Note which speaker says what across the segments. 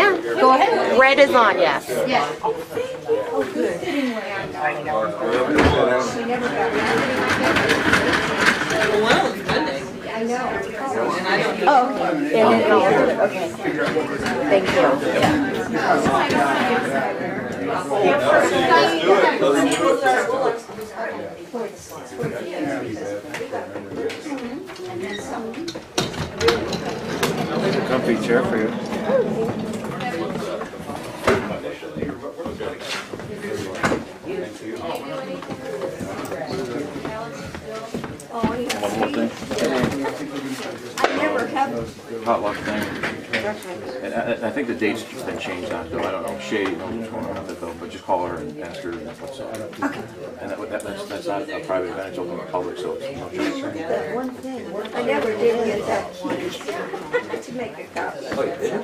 Speaker 1: Go ahead.
Speaker 2: Red is on, yes.
Speaker 1: Yeah. Oh, thank you. Oh, good. Sitting way on top. We never got that.
Speaker 3: Well, one of them's Monday,
Speaker 1: I know.
Speaker 3: and I don't.
Speaker 2: Oh, okay. And then I'll do it, okay. Thank you.
Speaker 4: Comfy chair for you.
Speaker 1: Oh, yeah.
Speaker 4: One more thing,
Speaker 1: I never have.
Speaker 4: potluck thing. And I, I- I think the date's just been changed on, it, though, I don't know, Shay knows what's going on with it, though, but just call her and ask her what's up. And that, that- that's, that's not a private event, it's open to the public, so it's no charge.
Speaker 1: I never did get that key to make a copy.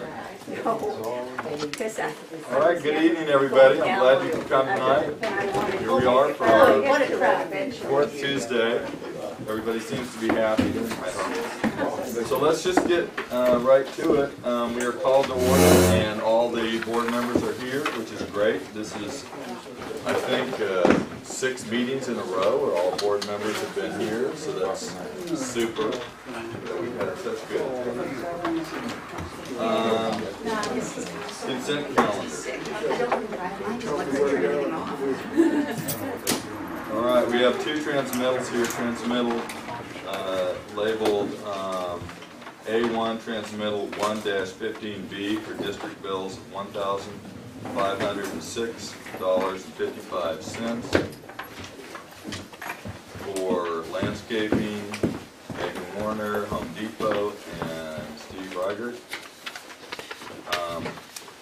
Speaker 1: No, because I,
Speaker 5: All right, good evening, everybody. I'm glad you could come tonight.
Speaker 1: I wanted.
Speaker 5: Here we are for
Speaker 1: Oh,
Speaker 5: our
Speaker 1: what a crowd. Eventually.
Speaker 5: fourth Tuesday. Everybody seems to be happy. I hope. So let's just get uh, right to it. Um, We are called to order and all the board members are here, which is great. This is, I think, uh, six meetings in a row where all board members have been here, so that's super. that We've had such good. Um, Consent calendar. All right, we have two transmittals here, transmittal uh, labeled um, A1 transmittal 1-15B for district bills $1,506.55 for landscaping, Megan Warner, Home Depot, and Steve Reichert. Um,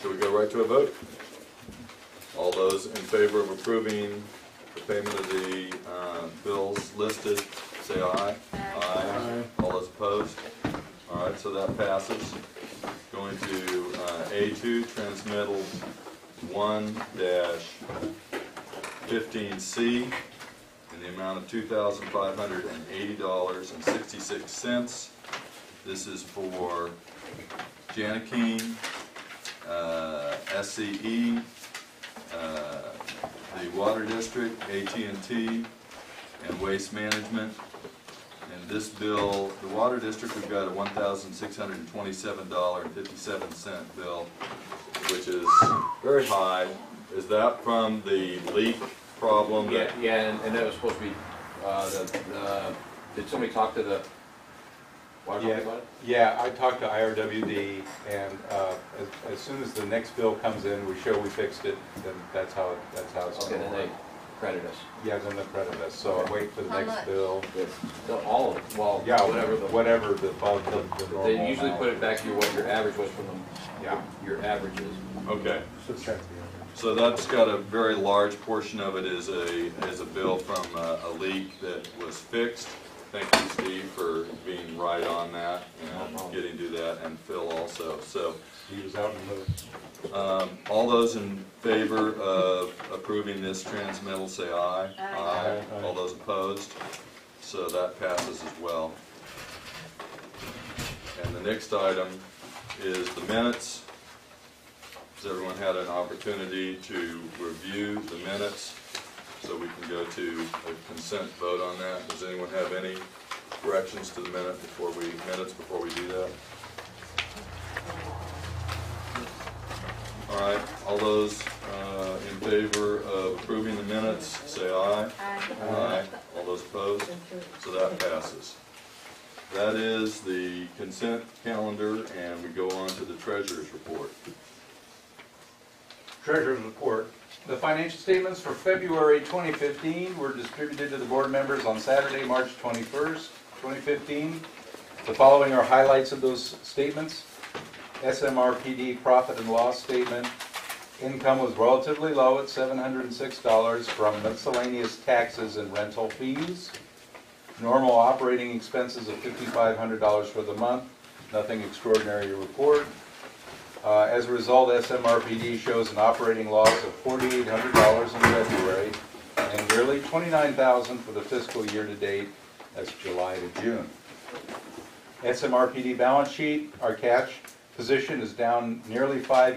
Speaker 5: Should we go right to a vote? All those in favor of approving the payment of the uh, bills listed, say aye. Aye. All those opposed? All right, so that passes. Going to uh, A2, transmittal one dash fifteen C in the amount of two thousand five hundred and eighty dollars and sixty-six cents. This is for Janikine, uh, SCE, uh, the Water District, at and t and Waste Management. And this bill, the Water District, we've got a one thousand six hundred and twenty-seven dollar and fifty-seven cent bill, which is very high. Is that from the leak problem
Speaker 6: Yeah,
Speaker 5: that
Speaker 6: yeah, and, and that was supposed to be, uh, the, the, did somebody talk to the water company about it?
Speaker 7: Yeah, I talked to IRWD, and uh, as- as soon as the next bill comes in, we show we fixed it, then that's how, it- that's how it's
Speaker 6: Okay,
Speaker 7: going
Speaker 6: then
Speaker 7: to
Speaker 6: they
Speaker 7: work.
Speaker 6: credit us.
Speaker 7: Yeah, then they'll credit us, so I'm waiting for the next bill.
Speaker 6: So all of, well,
Speaker 7: Yeah,
Speaker 6: whatever the,
Speaker 7: whatever the, bug- the the normal
Speaker 6: they usually
Speaker 7: amount.
Speaker 6: put it back to your- what your average was from the,
Speaker 7: Yeah.
Speaker 6: your averages.
Speaker 5: Okay. So that's got a very large portion of it is a, is a bill from uh, a, a leak that was fixed. Thank you, Steve, for being right on that and getting to that, and Phil also. So,
Speaker 7: He was out in the,
Speaker 5: um, all those in favor of approving this transmittal, say aye. Aye. All those opposed? So that passes as well. And the next item is the minutes. Has everyone had an opportunity to review the minutes? So we can go to a consent vote on that. Does anyone have any corrections to the minute before we, minutes before we do that? All right, all those uh, in favor of approving the minutes, say aye. Aye. All those opposed? So that passes. That is the consent calendar, and we go on to the treasurer's report.
Speaker 7: Treasurer's report. The financial statements for February 2015 were distributed to the board members on Saturday, March 21st, 2015. The following are highlights of those statements. SMRPD profit and loss statement. Income was relatively low at $706 from miscellaneous taxes and rental fees. Normal operating expenses of $5,500 for the month. Nothing extraordinary to report. Uh, As a result, SMRPD shows an operating loss of $4,800 in February and nearly $29,000 for the fiscal year to date, that's July to June. SMRPD balance sheet, our cash position is down nearly five.